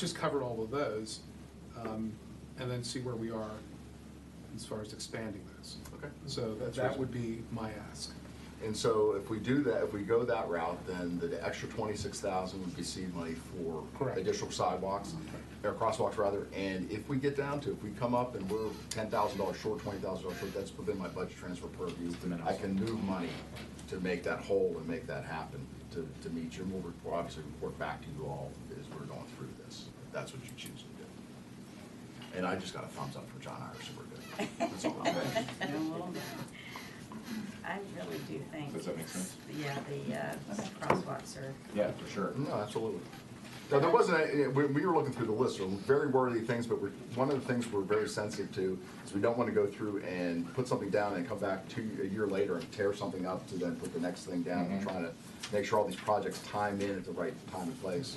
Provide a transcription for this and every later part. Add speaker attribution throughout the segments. Speaker 1: just cover all of those, um, and then see where we are as far as expanding those.
Speaker 2: Okay.
Speaker 1: So
Speaker 2: That's
Speaker 1: that would be my ask.
Speaker 2: And so if we do that, if we go that route, then the extra twenty-six thousand would be seed money for
Speaker 1: Correct.
Speaker 2: additional sidewalks, or crosswalks rather, and if we get down to, if we come up and we're ten thousand dollars short, twenty thousand dollars short, that's within my budget transfer purview.
Speaker 3: minimum.
Speaker 2: I can move money to make that whole and make that happen, to, to meet you, and we'll report- obviously report back to you all as we're going through this, if that's what you choose to do. And I just got a thumbs up from John Irish, so we're good. That's all I'm saying.
Speaker 4: I really do think.
Speaker 3: Does that make sense?
Speaker 4: Yeah, the uh, crosswalks are,
Speaker 3: Yeah, for sure.
Speaker 2: No, absolutely. Now, there wasn't, a- we, we were looking through the list, there were very worthy things, but we're, one of the things we're very sensitive to is we don't want to go through and put something down and come back two, a year later and tear something up to then put the next thing down and trying to make sure all these projects time in at the right time and place.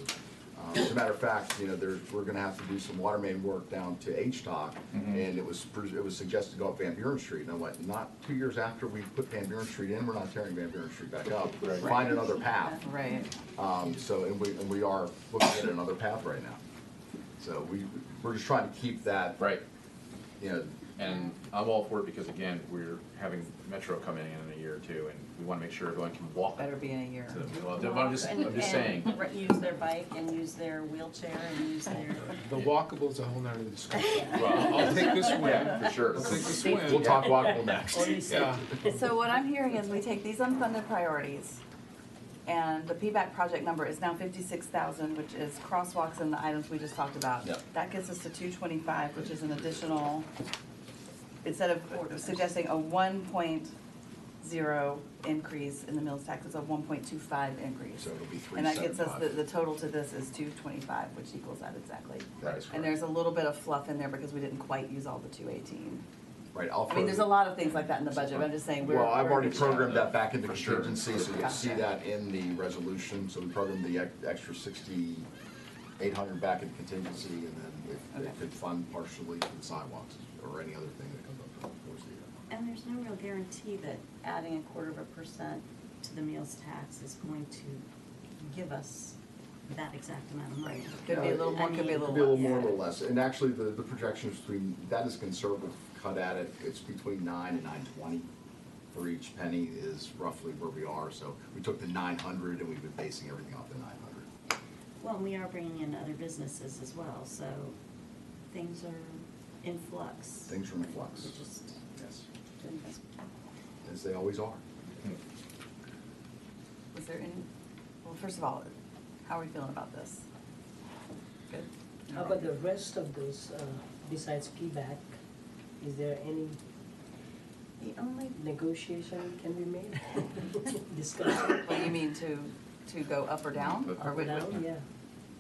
Speaker 2: Um, As a matter of fact, you know, there, we're gonna have to do some water main work down to H-Tock, and it was, pres- it was suggested to go up Van Buren Street, and I went, not two years after we put Van Buren Street in, we're not tearing Van Buren Street back up. Find another path.
Speaker 5: Right.
Speaker 2: Um, so, and we, and we are looking at another path right now. So we, we're just trying to keep that,
Speaker 3: Right,
Speaker 2: you know,
Speaker 3: and I'm all for it because again, we're having Metro come in in a year or two and we want to make sure everyone can walk.
Speaker 5: Better be in a year.
Speaker 3: to the- well, I'm just, I'm just saying,
Speaker 6: And- and Use their bike and use their wheelchair and use their.
Speaker 1: The walkable is a whole nother discussion.
Speaker 3: well, oh,
Speaker 1: I'll take this
Speaker 3: yeah,
Speaker 1: win.
Speaker 3: for sure.
Speaker 1: I'll take this win.
Speaker 2: we'll talk walkable next.
Speaker 1: Yeah.
Speaker 5: So what I'm hearing is we take these unfunded priorities, and the PBAC project number is now fifty-six thousand, which is crosswalks and the items we just talked about.
Speaker 2: Yep.
Speaker 5: That gets us to two twenty-five, which is an additional, instead of suggesting a one point zero increase in the mills tax, it's a one point two five increase.
Speaker 2: So it'll be three
Speaker 5: And that gets us, the,
Speaker 2: seventy-five.
Speaker 5: the total to this is two twenty-five, which equals that exactly.
Speaker 2: That is
Speaker 5: And
Speaker 2: correct.
Speaker 5: there's a little bit of fluff in there because we didn't quite use all the two eighteen.
Speaker 2: Right, I'll.
Speaker 5: I mean, there's a
Speaker 2: further-
Speaker 5: lot of things like that in the budget, but I'm just saying we're.
Speaker 2: Well, I've
Speaker 5: we're-
Speaker 2: already programmed that back into
Speaker 3: For sure.
Speaker 2: contingency, so you'll see
Speaker 5: Gotcha.
Speaker 2: that in the resolution. So we programmed the ex- extra sixty-eight hundred back in contingency, and then if they
Speaker 5: Okay.
Speaker 2: could fund partially for the sidewalks or any other thing that comes up during the course of the year.
Speaker 6: And there's no real guarantee that adding a quarter of a percent to the meals tax is going to give us that exact amount of money.
Speaker 5: Could be a little more, could be a
Speaker 2: Could be a
Speaker 5: little
Speaker 2: little
Speaker 5: less.
Speaker 2: more, a little less, and actually, the, the projections between, that is conservative cut at it, it's between nine and nine twenty for each penny is roughly where we are, so we took the nine hundred and we've been basing everything off the nine hundred.
Speaker 6: Well, we are bringing in other businesses as well, so things are in flux.
Speaker 2: Things are in flux,
Speaker 6: We're just
Speaker 2: yes,
Speaker 6: doing best we can.
Speaker 2: as they always are.
Speaker 5: Is there any, well, first of all, how are we feeling about this? Good?
Speaker 7: How about the rest of those, uh, besides PBAC, is there any
Speaker 6: The only,
Speaker 7: negotiation can be made? Discussion?
Speaker 5: What do you mean to, to go up or down? Or would-
Speaker 7: Now, yeah.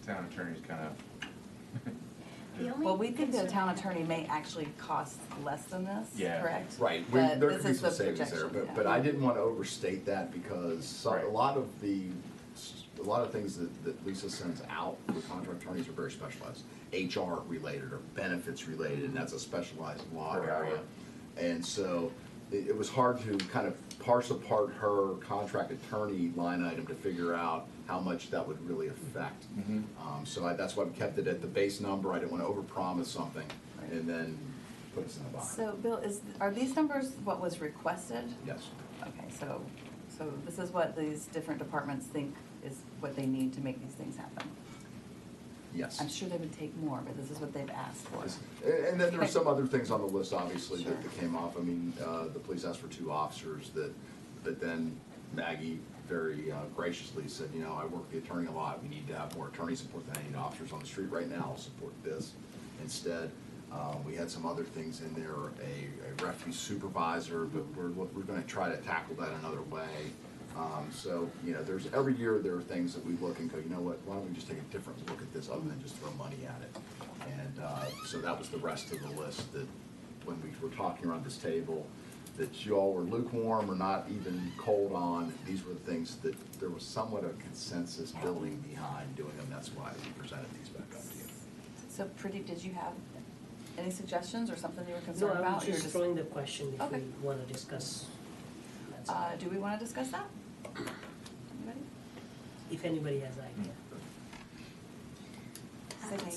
Speaker 3: Town attorney's kind of,
Speaker 6: the only.
Speaker 5: Well, we think the
Speaker 6: concern-
Speaker 5: town attorney may actually cost less than this,
Speaker 3: Yeah.
Speaker 5: correct?
Speaker 2: Right, we,
Speaker 5: But
Speaker 2: there
Speaker 5: this
Speaker 2: could be
Speaker 5: is
Speaker 2: some
Speaker 5: the
Speaker 2: savings there,
Speaker 5: projection,
Speaker 2: but,
Speaker 5: yeah.
Speaker 2: but I didn't wanna overstate that because so- a
Speaker 3: Right.
Speaker 2: lot of the, a lot of things that, that Lisa sends out for contract attorneys are very specialized. HR related or benefits related, and that's a specialized law
Speaker 3: Right.
Speaker 2: area. And so it, it was hard to kind of parse apart her contract attorney line item to figure out how much that would really affect.
Speaker 5: Mm-hmm.
Speaker 2: Um, so I, that's why I kept it at the base number, I didn't wanna overpromise something and then put us in a box.
Speaker 5: So, Bill, is, are these numbers what was requested?
Speaker 2: Yes.
Speaker 5: Okay, so, so this is what these different departments think is what they need to make these things happen.
Speaker 2: Yes.
Speaker 5: I'm sure they would take more, but this is what they've asked for.
Speaker 2: And and then there were some other things on the list, obviously, that
Speaker 5: Sure.
Speaker 2: that came off. I mean, uh, the police asked for two officers that, that then Maggie very uh, graciously said, you know, I work the attorney a lot. We need to have more attorney support than I need officers on the street right now. I'll support this instead. Uh, We had some other things in there, a a refugee supervisor, but we're, we're gonna try to tackle that another way. Um, So, you know, there's, every year, there are things that we look and go, you know what, why don't we just take a different look at this other than just throw money at it? And uh, so that was the rest of the list that, when we were talking around this table, that you all were lukewarm or not even cold on. These were the things that there was somewhat of consensus building behind doing them. That's why we presented these back up to you.
Speaker 5: So Pretty, did you have any suggestions or something you were
Speaker 7: No,
Speaker 5: concerned
Speaker 7: I'm
Speaker 5: about? You were
Speaker 7: just throwing the question if we
Speaker 5: Okay.
Speaker 7: wanna discuss. That's all.
Speaker 5: Uh, do we wanna discuss that? Anybody?
Speaker 7: If anybody has idea.
Speaker 5: Sydney?